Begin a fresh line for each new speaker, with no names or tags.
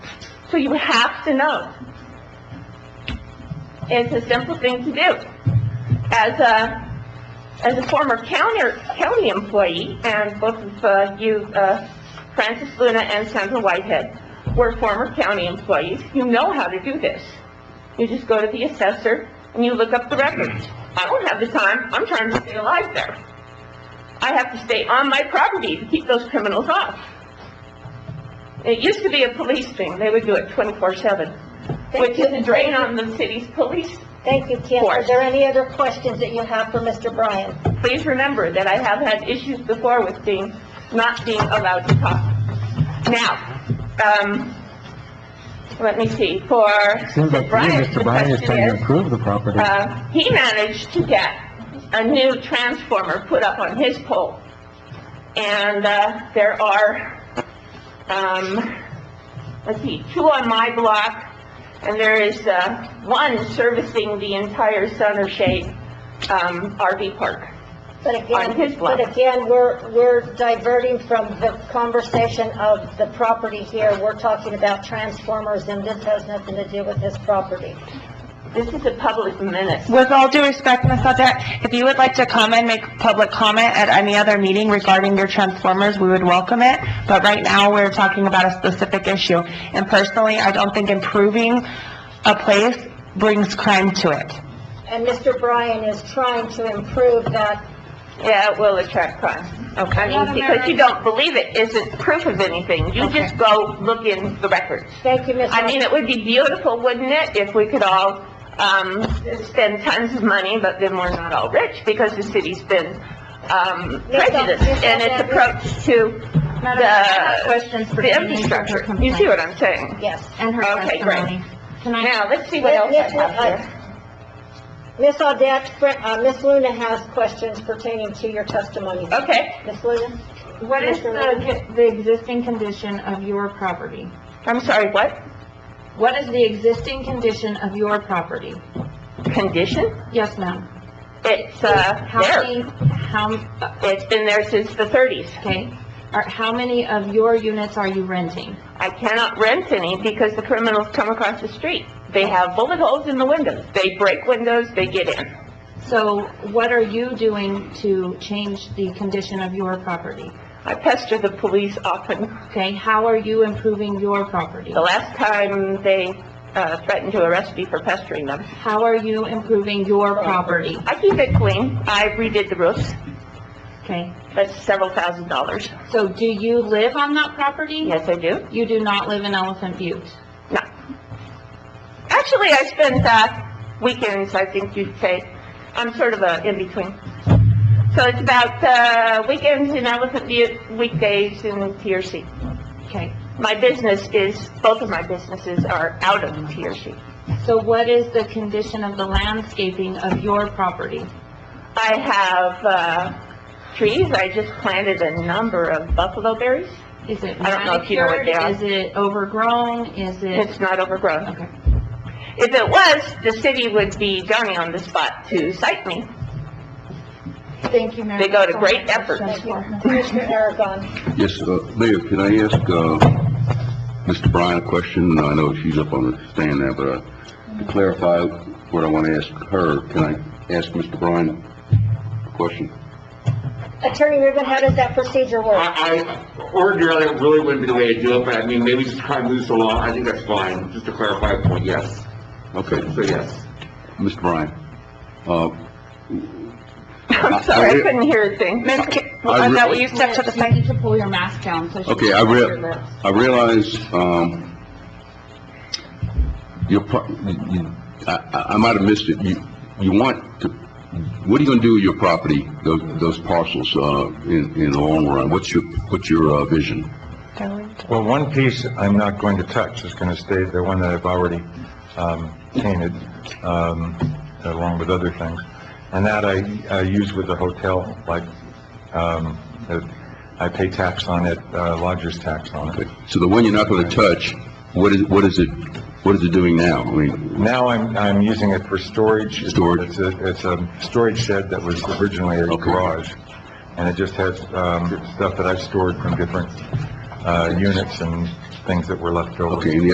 So you have to know. It's a simple thing to do. As a, as a former county, county employee, and both of uh, you, uh, Francis Luna and Sandra Whitehead, were former county employees, you know how to do this. You just go to the assessor and you look up the records. I don't have the time, I'm trying to stay alive there. I have to stay on my property to keep those criminals off. It used to be a police thing, they would do it twenty-four-seven, which is a drain on the city's police.
Thank you, Kim. Are there any other questions that you have for Mr. Bryan?
Please remember that I have had issues before with being, not being allowed to talk. Now, um, let me see, for
Seems like to me,
Brian's
Mr. Bryan is
question
trying to
is,
improve the property.
uh, he managed to get a new transformer put up on his pole. And, uh, there are, um, let's see, two on my block, and there is, uh, one servicing the entire Sun or Shade, um, RV park.
But
On his
again,
block.
but again, we're, we're diverting from the conversation of the property here. We're talking about transformers, and this has nothing to do with his property.
This is a public menace.
With all due respect, Ms. Audette, if you would like to come and make public comment at any other meeting regarding your transformers, we would welcome it, but right now, we're talking about a specific issue. And personally, I don't think improving a place brings crime to it.
And Mr. Bryan is trying to improve that.
Yeah, it will attract crime. Okay. I mean, because you don't believe it isn't proof of anything. You just go look in the records.
Thank you, Ms.
I mean, it would be beautiful, wouldn't it, if we could all, um, spend tons of money, but then we're not all rich because the city's been, um,
Yes, Dr.
prejudiced in its
Yes, Dr.
approach to
Madam, I have
the,
questions for
the
Denise and her
infrastructure. You see
complaint
what I'm saying?
Yes.
And her
Okay, great.
testimony. Can I-
Now, let's see what else I have here.
Ms. uh, Audette, Fr- uh, Ms. Luna has questions pertaining to your testimony.
Okay.
Ms. Luna?
What is the, the existing condition of your property?
I'm sorry, what?
What is the existing condition of your property?
Condition?
Yes, ma'am.
It's, uh,
How
there.
many, how,
It's been there since the thirties.
okay, Are- how many of your units are you renting?
I cannot rent any because the criminals come across the street. They have bullet holes in the windows. They break windows, they get in.
So what are you doing to change the condition of your property?
I pester the police often.
Okay, how are you improving your property?
The last time they uh, threatened to arrest me for pestering them.
How are you improving your property?
I keep it clean. I redid the roofs.
Okay,
That's several thousand dollars.
so do you live on that property?
Yes, I do.
You do not live in Elephant Butte?
No. Actually, I spend uh, weekends, I think you'd say. I'm sort of a in-between. So it's about uh, weekends in Elephant Butte, weekdays in TRC.
Okay,
My business is, both of my businesses are out of TRC.
so what is the condition of the landscaping of your property?
I have, uh, trees, I just planted a number of buffalo berries.
Is it
I don't know if you know what they are.
manicured? Is it overgrown? Is it,
It's not overgrown.
okay,
If it was, the city would be Johnny on the spot to cite me.
thank you, Mayor.
They go to great efforts.
Thank you. Commissioner Aragon.
Yes, uh, Mayor, can I ask, uh, Mr. Bryan a question? I know she's up on the stand now, but, uh, to clarify what I want to ask her, can I ask Mr. Bryan a question?
Attorney Rubin, how does that procedure work?
I, I, ordinarily, it really wouldn't be the way I do it, but I mean, maybe just try and move this along, I think that's fine, just to clarify a point, yes.
Okay,
So, yes.
Mr. Bryan, uh,
I'm
I-
sorry, I
I-
couldn't hear a thing.
Ms. Ki, is that what you step to the
You
side?
need to pull your mask down so she can
Okay, I
see your
rea,
lips.
I realize, um, your pro, you- you, I, I, I might have missed it, you, you want to, what are you gonna do with your property, those, those parcels, uh, in, in the long run? What's your, what's your, uh, vision?
Well, one piece I'm not going to touch is going to stay the one that I've already um, painted, um, along with other things. And that I, I use with the hotel, like, um, that I pay tax on it, uh, lodger's tax on it.
So the one you're not gonna touch, what is, what is it, what is it doing now? I mean,
Now I'm, I'm using it for storage.
Storage.
It's a, it's a storage shed that was originally a
Okay.
garage. And it just has, um, stuff that I've stored from different, uh, units and things that were left over.
okay, and the